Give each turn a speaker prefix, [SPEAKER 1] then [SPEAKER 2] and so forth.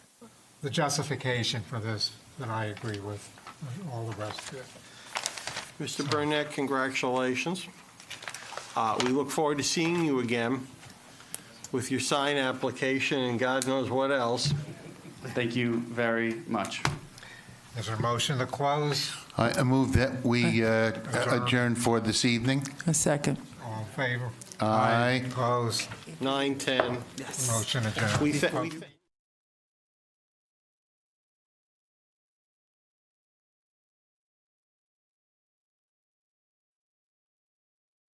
[SPEAKER 1] the justification for this that I agree with, and all the rest of it.
[SPEAKER 2] Mr. Burnett, congratulations. Uh, We look forward to seeing you again with your sign application and God knows what else.
[SPEAKER 3] Thank you very much.
[SPEAKER 1] Is there a motion to close?
[SPEAKER 4] I I move that we uh, adjourn for this evening.
[SPEAKER 5] A second.
[SPEAKER 1] All in favor?
[SPEAKER 4] Aye.
[SPEAKER 1] Opposed?
[SPEAKER 2] 9:10.
[SPEAKER 1] Motion adjourned.
[SPEAKER 2] We thank.